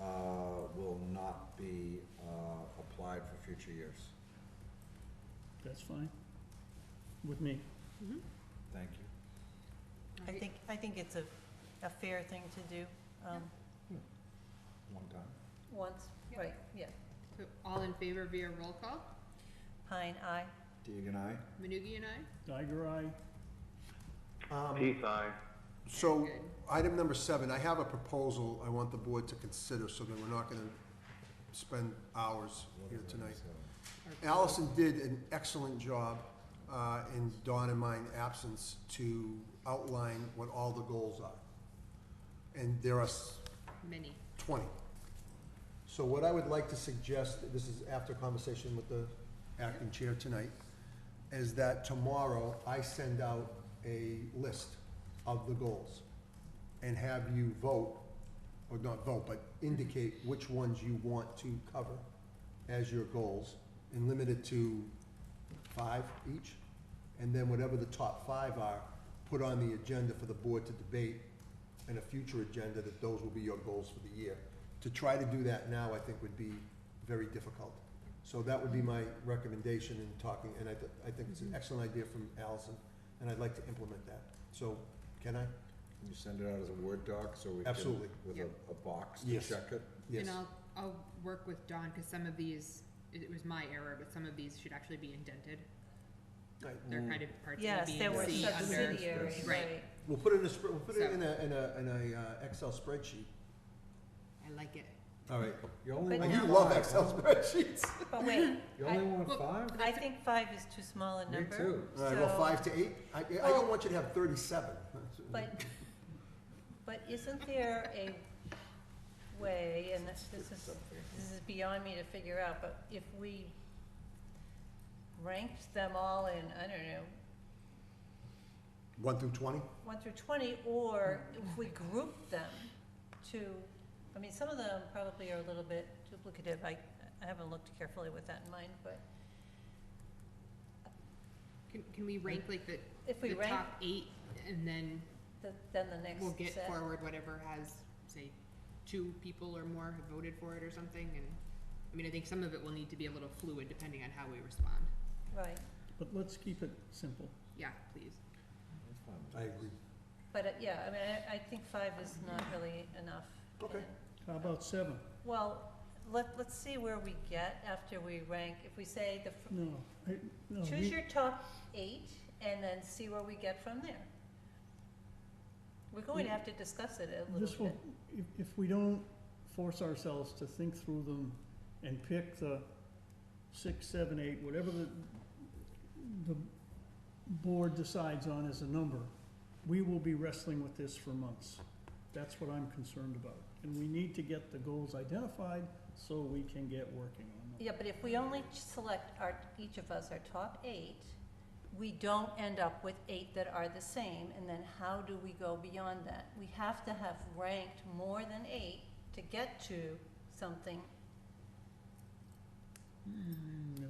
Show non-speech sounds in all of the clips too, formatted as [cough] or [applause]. uh, be uh, applied for future years. That's fine with me. Thank you. I think, I think it's a, a fair thing to do, um, One time. once, Yeah. right, yeah. So all in favor via roll call? Pine, aye. Deegan, aye? Manugie and I? Geiger, aye. Peace, aye. So, Good. item number seven, I have a proposal I want the board to consider, so that we're not gonna spend hours here tonight. Allison did an excellent job, uh, in Dawn and mine absence, to outline what all the goals are. And there are s- Many. 20. So what I would like to suggest, this is after conversation with the acting chair tonight, is that tomorrow I send out a list of the goals and have you vote, or not vote, but indicate which ones you want to cover as your goals and limit it to five each. And then whatever the top five are, put on the agenda for the board to debate in a future agenda that those will be your goals for the year. To try to do that now, I think would be very difficult. So that would be my recommendation in talking, and I, th- I think it's an excellent idea from Allison, and I'd like to implement that. So, can I? Can you send it out as a Word doc so we can? Absolutely. With a, a box to Yes. check it? Yes. And I'll, I'll work with Dawn, because some of these, it it was my error, but some of these should actually be indented. Right. They're kind of parts of Yes, B there were and C some under. city- subsidiary, Yes. Right. right. We'll put it in a, sp- we'll put it in a, in a, in a uh, Excel spreadsheet. I like it. All right. You only But want You now- love five, Excel huh? [laughs] spreadsheets. But wait, You only I- want Well, five? I think five is too small a Me number. too. All right, well, so- five to eight. I, I don't want you to have thirty-seven. But, but isn't there a way, and this this is, this is beyond me to figure out, but if we ranked them all in, I don't know, One through twenty? one through twenty, or if we group them to, I mean, some of them probably are a little bit duplicative, I, I haven't looked carefully with that in mind, but Can, can we rank like the, if we the rank, top eight, and then the- then the next we'll get set. forward whatever has, say, two people or more have voted for it or something, and, I mean, I think some of it will need to be a little fluid depending on how we respond. Right, But let's keep it simple. Yeah, please. That's fine. I agree. but, uh, yeah, I mean, I, I think five is not really enough. Okay. How about seven? Well, let, let's see where we get after we rank, if we say the, fir- No, I- no, Oh, choose we- your top eight and then see where we get from there. We're going to have to discuss it a this little will, bit. if, if we don't force ourselves to think through them and pick the six, seven, eight, whatever the, the board decides on as a number, we will be wrestling with this for months. That's what I'm concerned about. And we need to get the goals identified so we can get working on them. Yeah, but if we only ch- select our, each of us our top eight, we don't end up with eight that are the same, and then how do we go beyond that? We have to have ranked more than eight to get to something. Mm, No.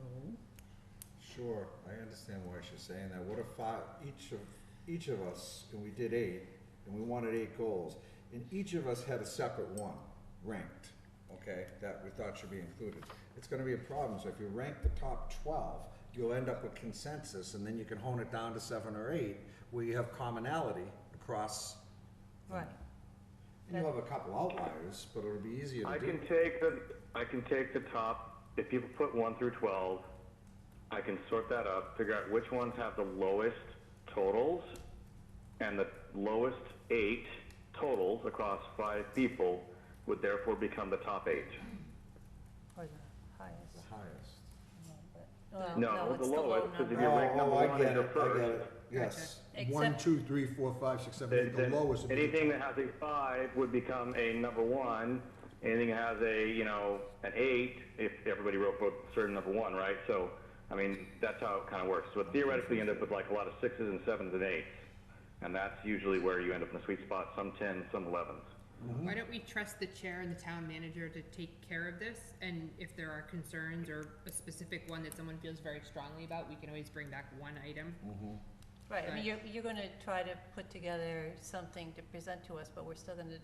Sure, I understand why she's saying that. What if five, each of, each of us, and we did eight, and we wanted eight goals, and each of us had a separate one ranked, okay, that we thought should be included. It's gonna be a problem, so if you rank the top twelve, you'll end up with consensus, and then you can hone it down to seven or eight, where you have commonality across, Right. and you'll have a couple outliers, but it'll be easier I to can do. take the, I can take the top, if people put one through twelve, I can sort that up, figure out which ones have the lowest totals, and the lowest eight totals across five people would therefore become the top eight. Or the highest. The highest. Well, No, the Uh, it's low lowest, because if number. you rank Oh, number oh, I one as get your it, I get first, it. Yes, One, Except, two, three, four, five, six, seven, then, eight, the then lowest. would be- anything that has a five would become a number one, anything that has a, you know, an eight, if everybody wrote for a certain number one, right? So, I mean, that's how it kind of works. So theoretically, you end up with like a lot of sixes and sevens and eights, and that's usually where you end up in the sweet spot, some tens, some elevens. Why don't we trust the chair and the town manager to take care of this? And if there are concerns or a specific one that someone feels very strongly about, we can always bring back one item. right, I mean, you're, you're gonna try to put together something to present to us, but we're still gonna